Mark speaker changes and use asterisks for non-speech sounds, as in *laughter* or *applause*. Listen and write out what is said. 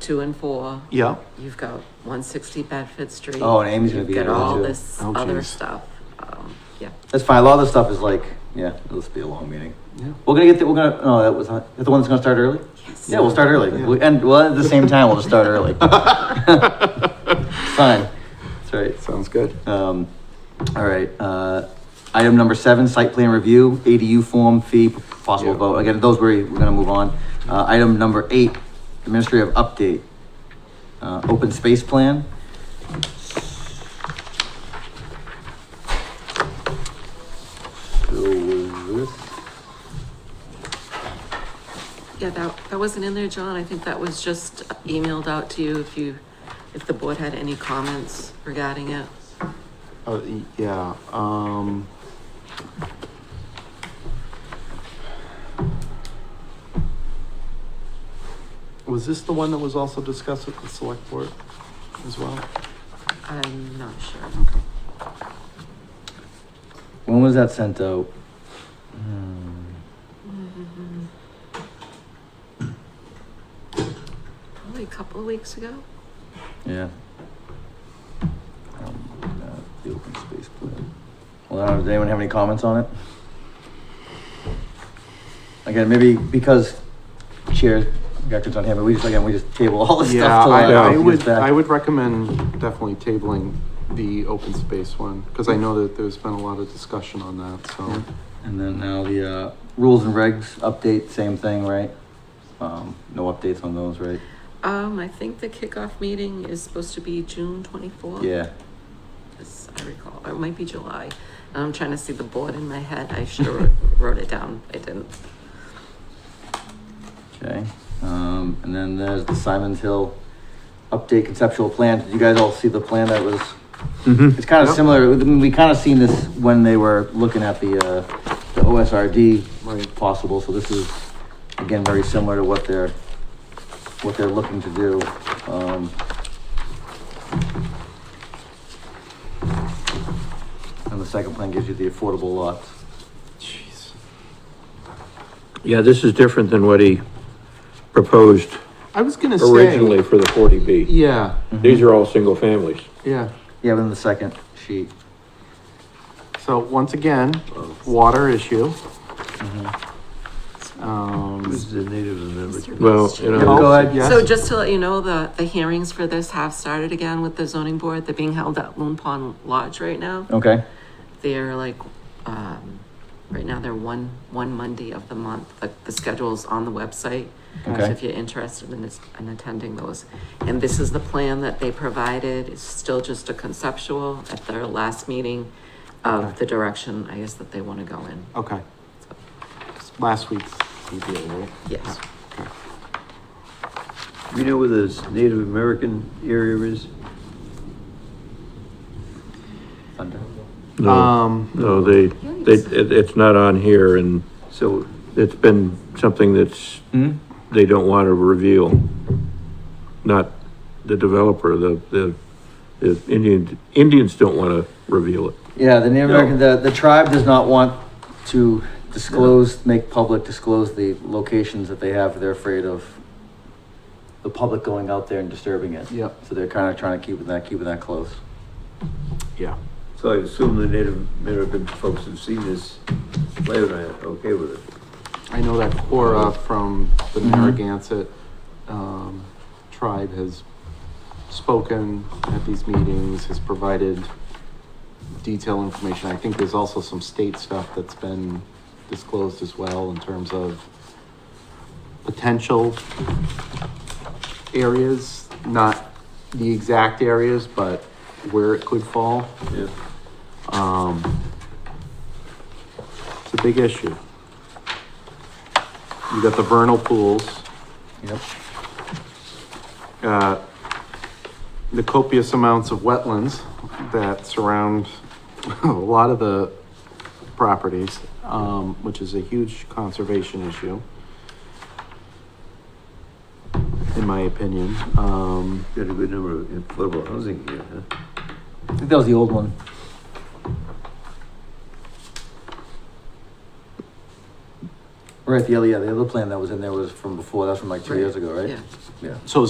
Speaker 1: two and four,
Speaker 2: Yeah,
Speaker 1: you've got one sixty Bedford Street.
Speaker 3: Oh, and Amy's gonna
Speaker 1: You've
Speaker 3: be
Speaker 1: got
Speaker 3: there,
Speaker 1: all
Speaker 3: too.
Speaker 1: this
Speaker 2: Oh,
Speaker 1: other
Speaker 2: geez.
Speaker 1: stuff, um, yeah.
Speaker 3: That's fine. A lot of this stuff is like, yeah, it'll just be a long meeting.
Speaker 2: yeah.
Speaker 3: We're gonna get the, we're gonna, no, that was not, that's the one that's gonna start early?
Speaker 1: Yes.
Speaker 3: Yeah, we'll start early.
Speaker 2: Yeah.
Speaker 3: We- And, well, at the same time, we'll just start
Speaker 2: *laughs*
Speaker 3: early. Fine. That's right.
Speaker 2: Sounds good.
Speaker 3: Um, all right, uh, item number seven, site plan review, ADU form fee, possible
Speaker 2: Yeah.
Speaker 3: vote. Again, those we're, we're gonna move on. Uh, item number eight, administrative update. Uh, open space plan. So was this?
Speaker 1: Yeah, that, that wasn't in there, John. I think that was just emailed out to you if you, if the board had any comments regarding it.
Speaker 2: Uh, y- yeah, um. Was this the one that was also discussed at the select board as well?
Speaker 1: I'm not sure.
Speaker 3: When was that sent out? Hmm.
Speaker 1: Probably a couple of weeks ago.
Speaker 3: Yeah. Um, uh, The open space plan. Well, I don't- does anyone have any comments on it? Again, maybe because chair records on here, but we just, again, we just table all this
Speaker 2: Yeah,
Speaker 3: stuff till.
Speaker 2: I,
Speaker 3: uh,
Speaker 2: I
Speaker 3: he gets
Speaker 2: would,
Speaker 3: back.
Speaker 2: I would recommend definitely tabling the open space one, because I know that there's been a lot of discussion on that, so.
Speaker 3: And then now the, uh, rules and regs update, same thing, right? Um, no updates on those, right?
Speaker 1: Um, I think the kickoff meeting is supposed to be June twenty-fourth.
Speaker 3: Yeah.
Speaker 1: As I recall, or it might be July. I'm trying to see the board in my head. I should have wrote *laughs* it down. I didn't.
Speaker 3: Okay, um, and then there's the Simon's Hill update conceptual plan. Did you guys all see the plan that was? It's kind of
Speaker 2: Yep.
Speaker 3: similar, I mean, we kind of seen this when they were looking at the, uh, the
Speaker 2: Right.
Speaker 3: OSRD possible, so this is, again, very similar to what they're, what they're looking to do. Um, And the second plan gives you the affordable lots.
Speaker 2: Jeez.
Speaker 4: Yeah, this is different than what he proposed
Speaker 2: I was gonna say.
Speaker 4: originally for the forty B.
Speaker 2: Yeah,
Speaker 4: These are all single families.
Speaker 2: yeah.
Speaker 3: Yeah, but in the second sheet.
Speaker 2: So once again, water issue. Um,
Speaker 4: the natives and
Speaker 1: everything.
Speaker 4: Well, you
Speaker 3: Yeah,
Speaker 4: know,
Speaker 3: Go ahead.
Speaker 2: yes.
Speaker 1: So just to let you know, the, the hearings for this have started again with the zoning board. They're being held at Loon Pond Lodge right now.
Speaker 3: Okay,
Speaker 1: They're like, um, right now they're one, one Monday of the month, but the schedule's on the website. So
Speaker 3: Okay.
Speaker 1: if you're interested in this, in attending those. And this is the plan that they provided. It's still just a conceptual at their last meeting of the direction, I guess, that they want to go in.
Speaker 3: Oh.
Speaker 2: Okay.
Speaker 1: So,
Speaker 2: Last week's CBA, right?
Speaker 1: Yes.
Speaker 5: You know where this Native American area is?
Speaker 3: Thunder.
Speaker 4: no,
Speaker 2: Um,
Speaker 4: no, they, they, it, it's not on here and
Speaker 5: So,
Speaker 4: it's been something that's,
Speaker 3: Hmm?
Speaker 4: they don't want to reveal. Not the developer, the, the, the Indian, Indians don't want to reveal it.
Speaker 3: Yeah, the Native
Speaker 4: No.
Speaker 3: American, the, the tribe does not want to disclose, make public disclose the locations that they have. They're afraid of the public going out there and disturbing it.
Speaker 2: yep,
Speaker 3: So they're kind of trying to keep it that, keep it that close.
Speaker 2: yeah.
Speaker 5: so I assume the Native American folks have seen this layout, and are okay with it.
Speaker 2: I know that Cora from the
Speaker 3: Mhm.
Speaker 2: Narragansett, um, tribe has spoken at these meetings, has provided detailed information. I think there's also some state stuff that's been disclosed as well in terms of potential areas, not the exact areas, but where it could fall.
Speaker 5: Yeah.
Speaker 2: Um, it's a big issue. You got the vernal pools,
Speaker 3: Yep.
Speaker 2: uh, the copious amounts of wetlands that surround *laughs* a lot of the properties, um, which is a huge conservation issue. In my opinion, um,
Speaker 5: Got a good number of affordable housing here, huh?
Speaker 3: I think that was the old one. Right, the other, yeah, the other plan that was in there was from before, that's from like two years ago, right?
Speaker 1: Yeah.
Speaker 3: Yeah.
Speaker 2: so